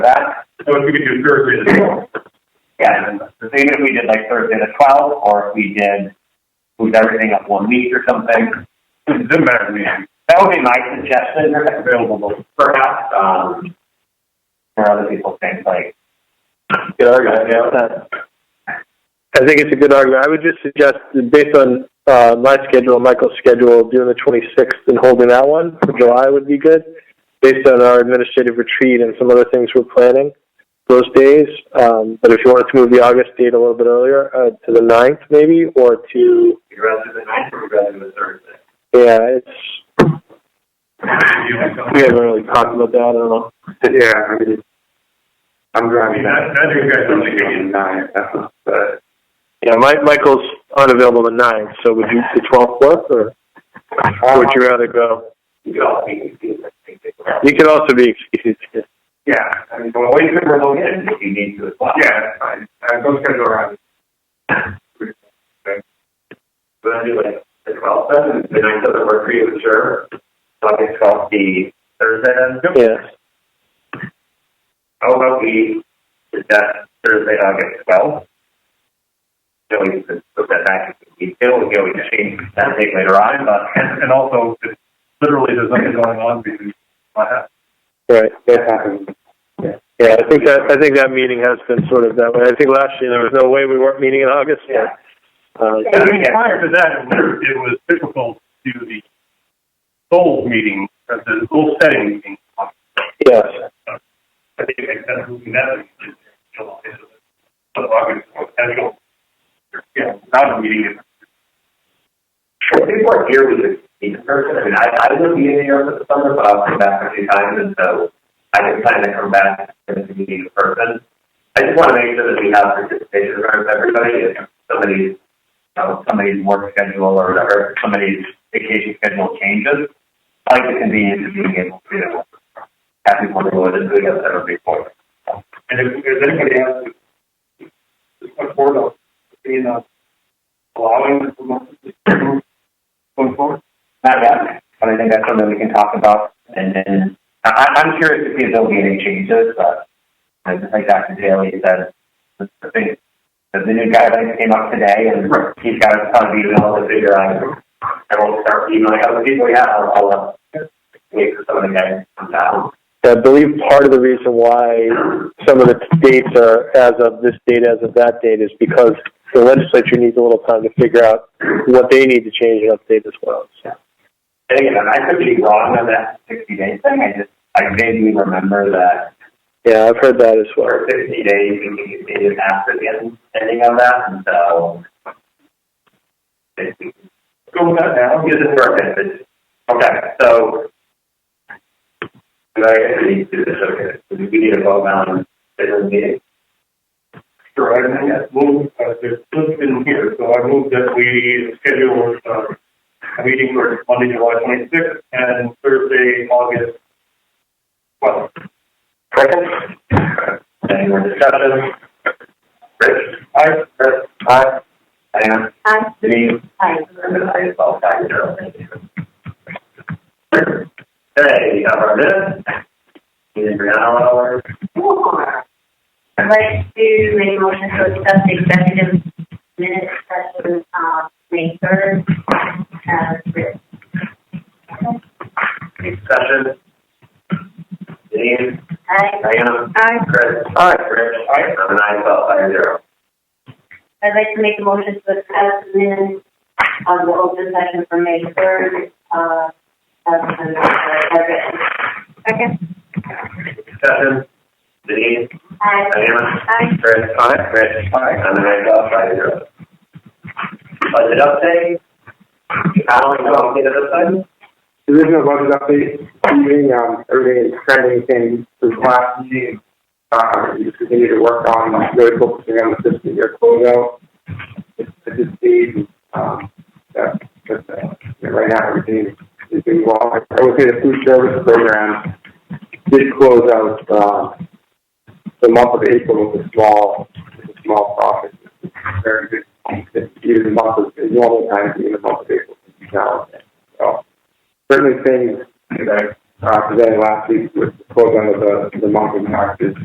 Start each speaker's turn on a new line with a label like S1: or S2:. S1: that.
S2: So if we could do Thursday, the-
S1: Yeah, so even if we did like Thursday the twelfth, or if we did move everything up one week or something,
S2: it doesn't matter to me, I'm
S1: that would be my suggestion.
S2: available.
S1: Perhaps um, for other people think like
S3: Good argument,
S4: I think it's a good argument. I would just suggest, that based on uh, my schedule, Michael's schedule, doing the 26th and holding that one for July would be good. Based on our administrative retreat and some other things we're planning those days. Um, but if you wanted to move the August date a little bit earlier uh, to the 9th, maybe, or to,
S2: You'd rather the ninth or rather the Thursday?
S4: yeah, it's, we haven't really talked about that. I don't know.
S5: Yeah, I mean, I'm
S2: I mean,
S5: driving
S2: I,
S5: that,
S2: I think you guys
S5: I'm
S2: don't
S5: thinking in nine, uh, but
S4: Yeah, Mike, Michael's unavailable the 9th, so would you the 12th work, or would you rather go?
S2: you could all be confused, I think.
S4: You could also be excused.
S2: Yeah, I mean, well, you could remote in,
S1: if you need to as well.
S2: yeah, that's fine, I'm just gonna go around. Okay. But I do like the twelfth, then, the ninth doesn't work for you, sure.
S1: August twelfth be Thursday then.
S4: Yeah.
S1: How about we is that Thursday, August twelfth? So we could put that back if we need to. We can always change that date later on, but
S2: And, and also, it's literally, there's nothing going on between, uh,
S4: Right.
S5: that happens.
S4: Yeah, I think that I think that meeting has been sort of that way. I think last year there was no way we weren't meeting in August.
S1: Yeah.
S4: Uh,
S2: I mean, prior to that, it was, it was difficult to do the goal meeting, uh, the goal setting meeting.
S4: yes.
S2: I think that's moving that in July, so the August, annual, yeah, not a meeting.
S1: I think we're here we could meet in person. I mean, I, I live in New York this summer, but I'll come back a few times, and so I can plan to come back and to meet in person. I just want to make sure that we have participation from everybody. If somebody's, you know, somebody's work schedule or whatever, somebody's vacation schedule changes, I like the convenience of being able to, you know, have people who are doing it at every point.
S2: And if, if anybody has, just put forward, a- you know, allowing the promotion to going forward.
S1: Not yet, but I think that's something we can talk about. And then I, I- I'm curious to see if there'll be any changes, but I just like Dr. Daly said, the the thing, the the new guidelines came up today and he's got a ton of emails to figure out. And we'll start emailing other people, yeah, I'll, I'll, uh, wait for some of the guys to come down.
S4: I believe part of the reason why some of the dates are as of this date, as of that date, is because the legislature needs a little time to figure out what they need to change and update as well. So,
S1: And again, I could be wrong on that sixty day thing, I just, I vaguely remember that
S4: yeah, I've heard that as well.
S1: for 60 days and we continued after the end- ending of that. And so, basically, go with that now. Use it for our benefit. Okay, so, do I need to do this? Okay, so we need to vote on the meeting.
S2: Sure, I mean, I move, uh, there's Cliff in here, so I move that we schedule, uh, a meeting for Monday, July twenty-sixth, and Thursday, August twelfth.
S1: Second? Any more discussion? Rich? Aye. Chris? Aye. Diane?
S6: Aye.
S1: Denise?
S6: Aye.
S1: And then I as well, five zero. Thank you. Okay, we have our minutes. Either Brianna or
S6: I'd like to make a motion to accept the executive minutes session, uh, May third, as written.
S1: discussion. Denise,
S6: Aye.
S1: Diana,
S6: Aye.
S1: Chris. Aye. Rich. Aye. And I as well, five zero.
S6: I'd like to make a motion to accept the minutes of the open session for May third, uh, as, as written. Second.
S1: Discussion. Denise,
S6: Aye.
S1: Diana.
S6: Aye.
S1: Chris. Aye. Rich. Aye. And I as well, five zero. Budget update. Alan, you want me to this one?
S5: So There's no budget update meeting, um, everything is trending things since last meeting. Uh, we just continue to work on, like, really focusing on the fiscal year closeout. At this stage, um, that, that, uh, you know, right now, everything is doing well. I would say the food service program did close out, uh, the month of April with a small, with a small profit. It's Very good, It's even the month of, in normal times, even the month of April, it's now, so certainly things that uh, presented last week with the program of the, the month of March is